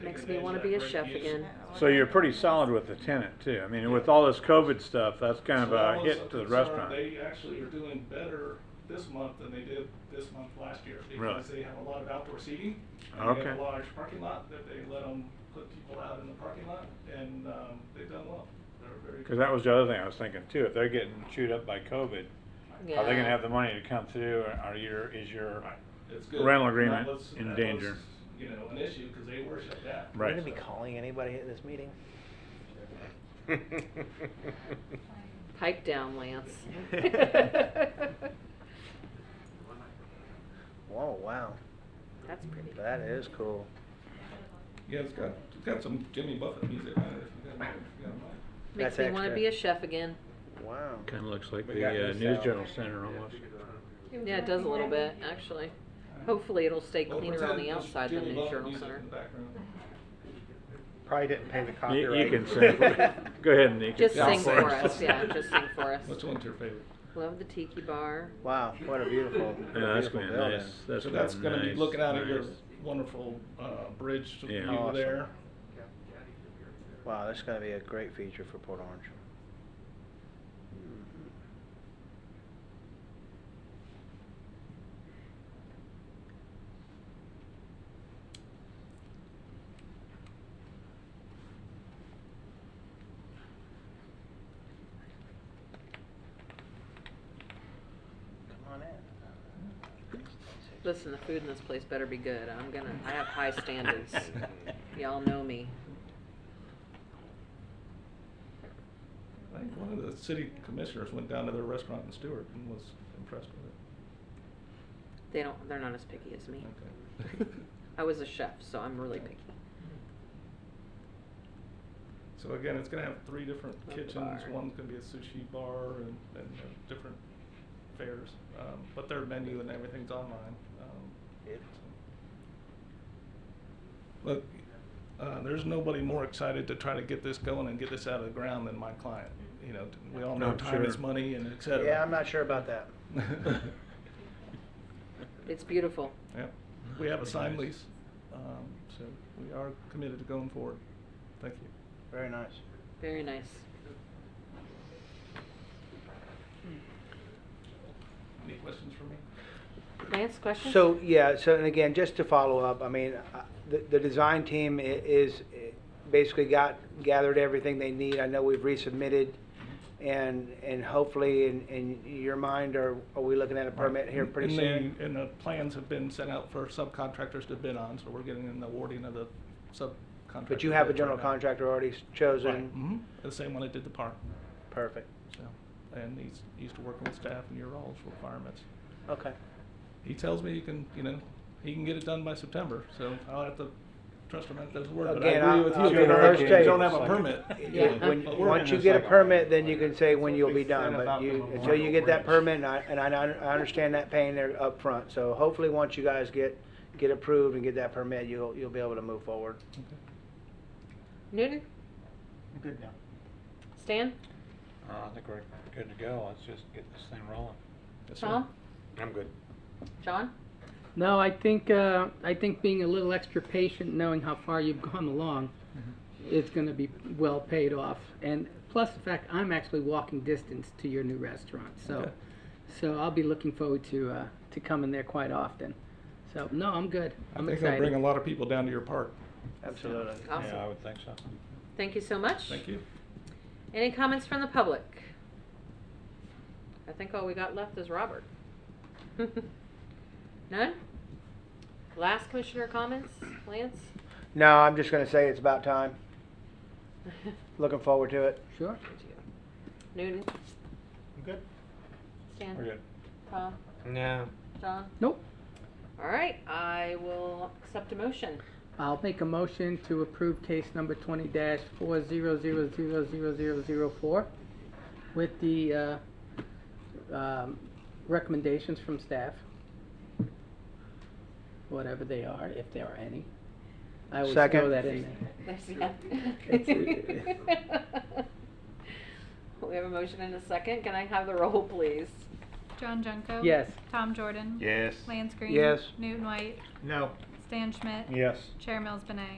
Makes me wanna be a chef again. So you're pretty solid with the tenant too. I mean, with all this COVID stuff, that's kind of a hit to the restaurant. uh, They actually are doing better this month than they did this month last year. Because Really? they have a lot of outdoor seating. and They have Okay. a large parking lot that they let them put people out in the parking lot and, um, they've done well. They're very. Cause that was the other thing I was thinking too. If they're getting chewed up by COVID, Yeah. are they gonna have the money to come through or are your, is your, It's good. Rental That agreement was- in that was, danger. You know, an issue because they were shut down. Right. We're gonna be calling anybody at this meeting. Pipe down, Lance. Whoa, Oh, wow, That's pretty. that is cool. Yeah, it's got, it's got some Jimmy Buffett music on it. if you got it, if you got it. Makes That's me wanna extra. be a chef again. Wow. kinda looks like We got the uh, this News out. Journal Center almost. Yeah, it does a little bit, actually. Hopefully it'll stay Well, cleaner on pretend the there's outside than Jimmy the Buffett journal music center. in the background. Probably didn't pay the You, copyright. you can sing. Go ahead and you can Just sing. sing for us, yeah, just sing for us. Which one's your favorite? Love the tiki bar. Wow, what a beautiful, what Yeah, a that's beautiful gonna be building. nice. That's So that's gonna gonna be be nice, looking out at your nice. wonderful, uh, bridge Yeah. view Awesome. there. Wow, that's gonna be a great feature for Port Orange. Come on in. Listen, the food in this place better be good. I'm gonna, I have high standards. Y'all know me. I think one of the city commissioners went down to their restaurant in Stewart and was impressed with it. They don't, they're not as picky as me. Okay. I was a chef, so I'm really picky. So again, it's gonna have three different Love the kitchens, bar. one's gonna be a sushi bar and, and uh, different fares. Um, but their menu and everything's online, um. Yep. so. Look, uh, there's nobody more excited to try to get this going and get this out of the ground than my client. You know, we all know I'm time is sure. money and et cetera. Yeah, I'm not sure about that. It's beautiful. Yep, we have a signed Nice. lease, um, so we are committed to going forward. Thank you. Very nice. Very nice. Any questions for me? Lance, question? So, yeah, so, and again, just to follow up, I mean, I- the, the design team i- is, eh, basically got, gathered everything they need. I know we've resubmitted, and, and hopefully, in, in your mind, are, are we looking at a permit here pretty And soon? the- And the plans have been sent out for subcontractors to bid on, so we're getting an awarding of the subcontractor. But you have a bids right general now. contractor already s- Right, chosen? mhm. the same one that did the park, Perfect, so, and he's, he's to working with staff and your all's requirements. okay. He tells me he can, you know, he can get it done by September, so I'll have to trust him at those words, but I Again, I- agree with I'll you. be if the first you to don't tell have you, a it's permit. like- you know, Yeah, When, but we're once you get a permit, then you can say when you'll be done, but you, until you get that permit, and I, and I, I understand that pain there up front. So hopefully, once you guys get, get approved and get that permit, you'll, you'll be able to move forward. Newton? Good now. Stan? Uh, I think we're good to go. Let's just get this thing rolling. Yes, sir. Tom? I'm good. John? No, I think uh, I think being a little extra patient, knowing how far you've gone along, Mm-hmm. is going to be well paid off. And plus the fact I'm actually walking distance to your new restaurant, so Okay. so I'll be looking forward to uh, to coming there quite often. So no, I'm good. I I'm think excited. it'll bring a lot of people down to your park. Absolutely. Awesome. Yeah, I would think so. Thank you so much. Thank you. Any comments from the public? I think all we got left is Robert. None? Last commissioner comments, Lance? No, I'm just gonna say it's about time. Looking forward to it. sure. Newton? Good. Stan? We're good. Tom? No. John? Nope. All right, I will accept a motion. I'll make a motion to approve case number twenty dash four zero zero zero zero zero zero four with the uh, um, recommendations from staff, whatever they are, if there are any. I would throw Second. that in there. There's- yeah. We have a motion and a second. Can I have the roll, please? John Junko? Yes. Tom Jordan? Yes. Lance Green? Yes. Newton White? No. Stan Schmidt? Yes. Chair Mills Benay?